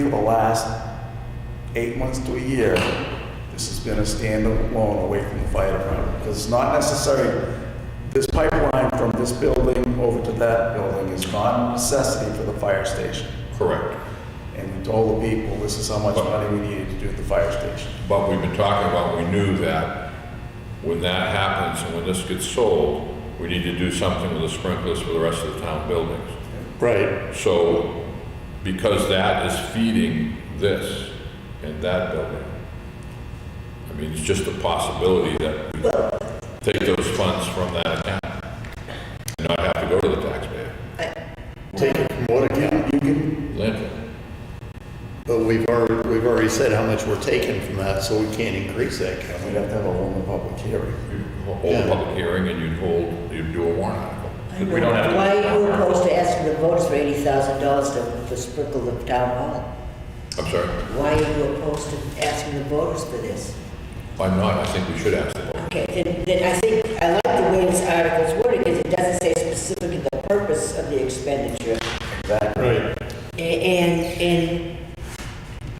For the last eight months to a year, this has been a standalone away from the fire department. Because it's not necessary, this pipeline from this building over to that building is not a necessity for the fire station. Correct. And we told the people, this is how much money we needed to do the fire station. But we've been talking about, we knew that when that happens and when this gets sold, we need to do something with the sprinklers for the rest of the town buildings. Right, So, because that is feeding this and that building, I mean, it's just a possibility that we take those funds from that account and not have to go to the taxpayer. take it from what account, You can, Landfill. but we've already, we've already said how much we're taking from that, so we can't increase that account. we'd have to have a whole public hearing. You Hold a public hearing and you'd hold, you'd do a warrant article. We don't have to- Why are you opposed to asking the voters for eighty thousand dollars to, to sprinkle the town hall? I'm sorry, Why are you opposed to asking the voters for this? I'm not, I think we should ask the board. Okay, then, then I think, I like the way this article's worded, because it doesn't say specifically the purpose of the expenditure. Right. A- And, and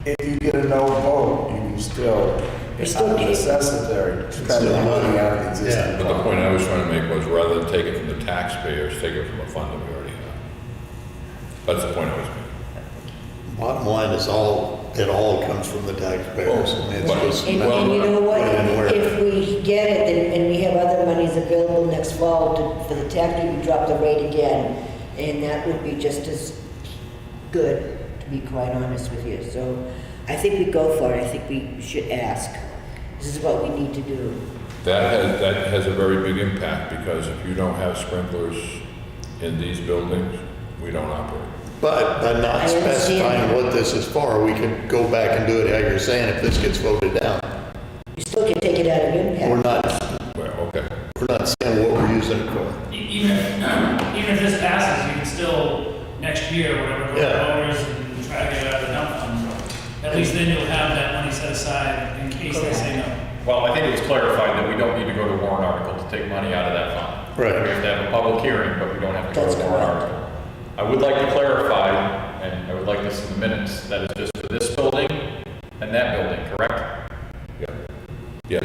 If you get a no vote, you can still, it's still not getting- necessary to spend still the money money. out of the Yeah. existing. But the point I was trying to make was rather than take it from the taxpayers, take it from a fund that we already have. That's the point I was making. Bottom line is all, it all comes from the taxpayers. I mean, it's Well, just- And, and you know what, Put it in where- if we get it, then- and we have other monies available next fall to, for the tax, we can drop the rate again, and that would be just as good, to be quite honest with you, so I think we go for it, I think we should ask. This is what we need to do. That has, that has a very big impact because if you don't have sprinklers in these buildings, we don't operate. But by I not understand. specifying what this is for, we could go back and do it how you're saying if this gets voted down. You still can take it out of We're impact. not, Well, okay. we're not saying what we're using it for. E- Even, even if this passes, you can still, next year, whatever, go Yeah. to voters and try to get it out of the dump fund. At least then you'll have that money set aside in case they say no. Well, I think it was clarified that we don't need to go to warrant article to take money out of that fund. Right. We have to have a public hearing, but we don't have to go That's to warrant correct. article. I would like to clarify, and I would like this in the minutes, that is just for this building and that building, correct?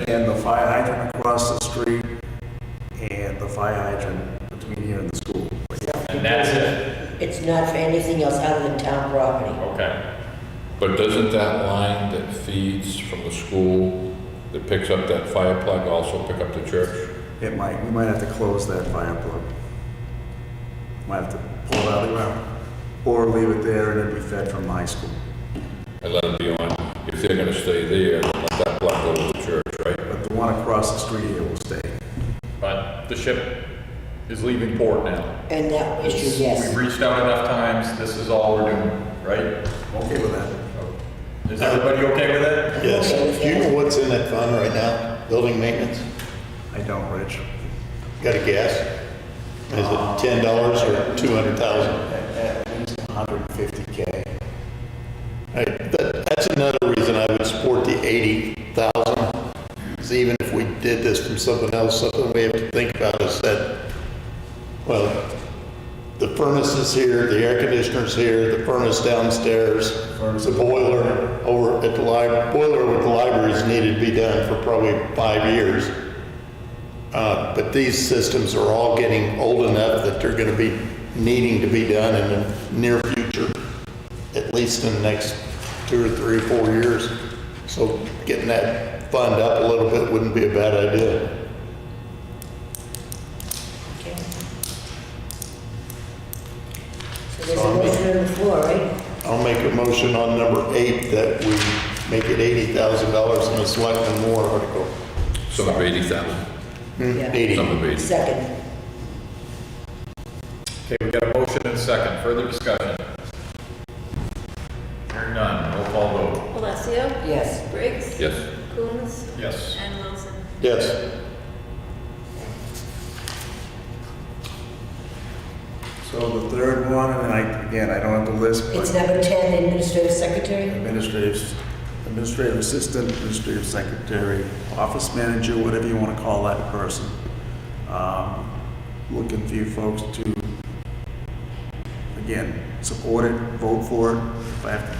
And the fire hydrant across the street and the fire hydrant between here and the school. And that's it, It's not for anything else other than town property. okay. But doesn't that line that feeds from the school, that picks up that fire plug, also pick up the church? It might, we might have to close that fire plug. Might have to pull it out of the ground. Or leave it there and it'd be fed from the high school. And let it be on, if they're gonna stay there, then let that plug go to the church, right? But the one across the street here will stay. But the ship is leaving port now. And that It's- issue, yes. We've reached out enough times, this is all we're doing, right? Oh. I'm Okay with that? Is everybody okay with it? Yes, do you know what's in that fund right now? Building maintenance? I don't, Rich. Got a guess? Is Uh, it ten dollars or two hundred thousand? At at least 150K. That, that's another reason I would support the eighty thousand. Is even if we did this from something else, something we have to think about is that, well, the furnace is here, the air conditioner's here, the furnace downstairs, the boiler over at the lib, boiler with the libraries needed to be done for probably five years. Uh, But these systems are all getting old enough that they're going to be needing to be done in the near future, at least in the next two or three or four years. So getting that fund up a little bit wouldn't be a bad idea. Okay. So there's a motion on the floor, right? I'll make a motion on number eight that we make it $80,000 in a selectman warrant article. Some of eighty thousand, Yeah. some 80. of eighty. Second. Okay, we got a motion and second, further discussion? Hearing none, roll call vote. Alessio? Yes. Briggs? Yes. Coombs? Yes. And Wilson? Yes. So the third one, and I, again, I don't have the list, It's but number 10, administrative secretary? administrative, administrative assistant, administrative secretary, office manager, whatever you want to call that person. Um, Looking for you folks to, again, support it, vote for it. If I have to